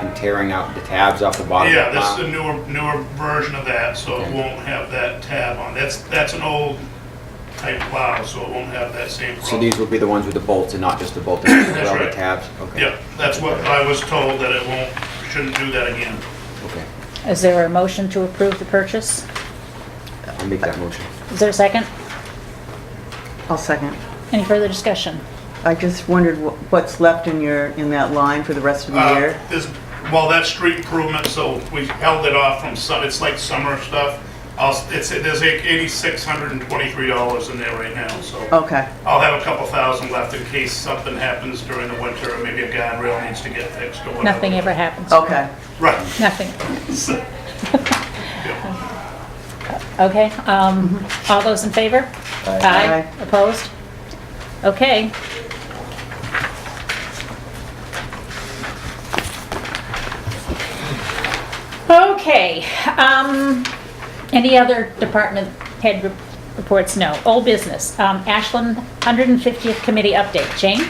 I'm tearing out the tabs off the bottom. Yeah, of the that's plow. the newer, newer version of that, so it won't have that tab on. That's, that's an old type plow, so it won't have that same So problem. these will be the ones with the bolts and not just the bolt and That's rubber right. tabs? Okay. Yeah, that's what I was told, that it won't, shouldn't do that again. Okay, Is there a motion to approve the purchase? I'll make that motion. Is there a second? I'll second. Any further discussion? I just wondered wh- what's left in your, in that line for the rest of the Uh, year? This, well, that's street improvement, so we held it off from, su- it's like summer stuff. I'll, s- it's, there's eighty-six hundred and twenty-three dollars in there right now, so. Okay, I'll have a couple thousand left in case something happens during the winter, or maybe a guardrail needs to get fixed or whatever. Nothing ever happens. okay. Right. Nothing. So- Okay, um, all those in favor? Aye. Opposed? Okay. Okay, um, any other department head rep- reports? No. Old business, um, Ashland 150th Committee update. Jane?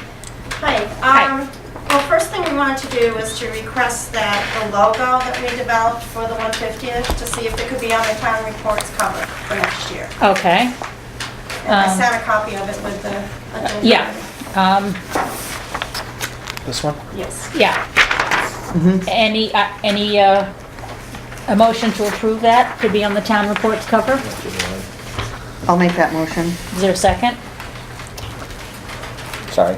Hi. Um, Well, first thing we wanted to do was to request that the logo that we developed for the 150th, to see if it could be on the town reports cover for next year. Okay, And I Um, sent a copy of it with the agenda. yeah, um, This one? Yes. yeah. Any, uh, any, uh, a motion to approve that to be on the town reports cover? I'll make that motion. Is there a second? Sorry.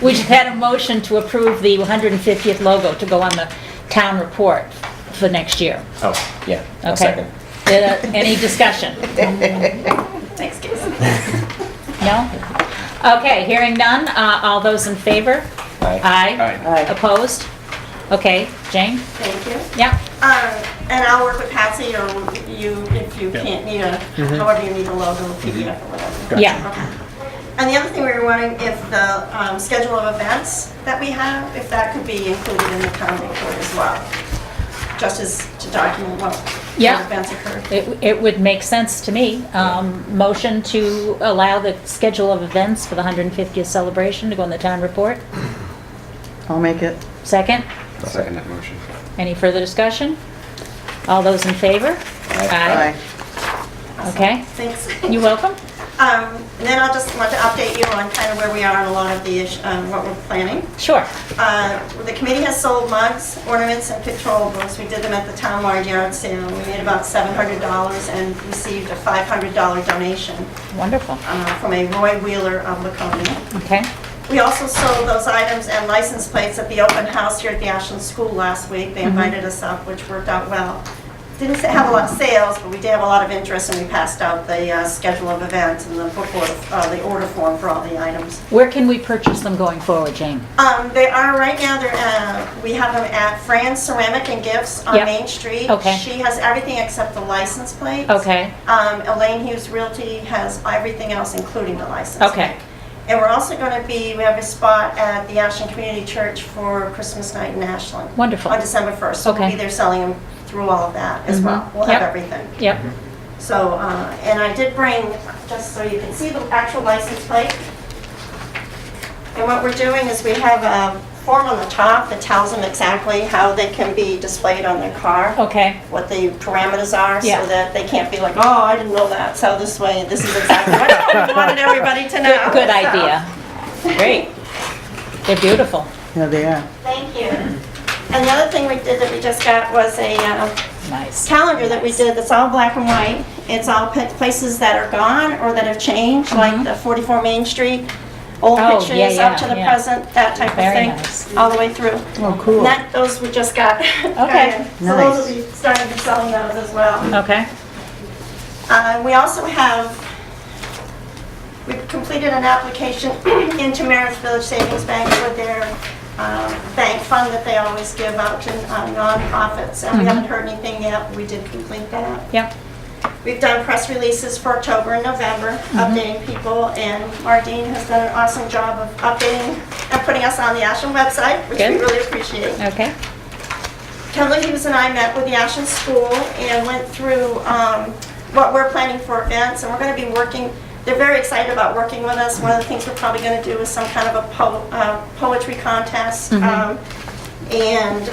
We just had a motion to approve the 150th logo to go on the town report for next year. Oh, yeah. I'll Okay. second. Uh, Any discussion? Thanks, Casey. No? Okay, hearing none, uh, all those in favor? Aye. Aye. Aye. Opposed? Okay, Jane? Thank you. Yeah, Um, And I'll work with Patsy or you if you can't need a, however you need a logo, pick it up or whatever. yeah, Okay. And the other thing we were wondering if the um, schedule of events that we have, if that could be included in the town report as well, just as to document what Yeah. what events occurred. it it would make sense to me. Um, Motion to allow the schedule of events for the 150th celebration to go in the town report. I'll make it. Second? I'll second that motion. Any further discussion? All those in favor? Aye. Okay, Thanks. you're welcome. Um, And then I'll just want to update you on kind of where we are on a lot of the, ish- um, what we're planning. Sure. Uh, The committee has sold mugs, ornaments, and controllables. We did them at the town yard yard sale. We made about $700 and received a $500 donation Wonderful. uh, from a Roy Wheeler of Laconia. Okay. We also sold those items and license plates at the open house here at the Ashland School last week. They invited us up, which worked out well. Didn't sa- have a lot of sales, but we did have a lot of interest, and we passed out the uh, schedule of events and the book order, uh, the order form for all the items. Where can we purchase them going forward, Jane? Um, They are, right now, they're, uh, we have them at Fran's Ceramic and Gifts on Yep. Main Street. Okay. She has everything except the license plates. Okay, Um, Elaine Hughes Realty has everything else, including the license. Okay. And we're also going to be, we have a spot at the Ashland Community Church for Christmas night in Ashland. Wonderful. On December 1st. So we'll Okay. Mm-hmm. be there selling them through all of that as well. We'll have Yep. everything. yep, So, uh, and I did bring, just so you can see the actual license plate. And what we're doing is we have a form on the top that tells them exactly how they can be displayed on their car okay, what the parameters are, Oh. Yeah. so that they can't be like, oh, I didn't know that, so this way, this is exactly what I wanted everybody to know. good So, idea. Great. They're beautiful. Yeah, they are. Thank you. And the other thing we did that we just got was a uh, Nice. calendar that we did that's all black and white. It's all pa- places that are gone or that have changed, like the 44 Main Street, old Mm-hmm. Oh, yeah, pictures up to yeah, the yeah. present, that type of Very thing. nice. All the way through. Oh, cool. And that, those we just got. Okay. So those will be starting to sell those as well. Okay, Uh, We also have, we've completed an application into Meredith Village Savings Bank with their um, bank fund that they always give out to uh, nonprofits. Mm-hmm. And we haven't heard anything yet, but we did complete that. yep, We've done press releases for October and November, updating people. And Mardine has done an awesome job of updating and putting us on the Ashland website, which we Good. really appreciate. okay, Kelly Hughes and I met with the Ashland School and went through um, what we're planning for events, and we're going to be working, they're very excited about working with us. One of the things we're probably going to do is some kind of a po- uh, poetry contest. um, And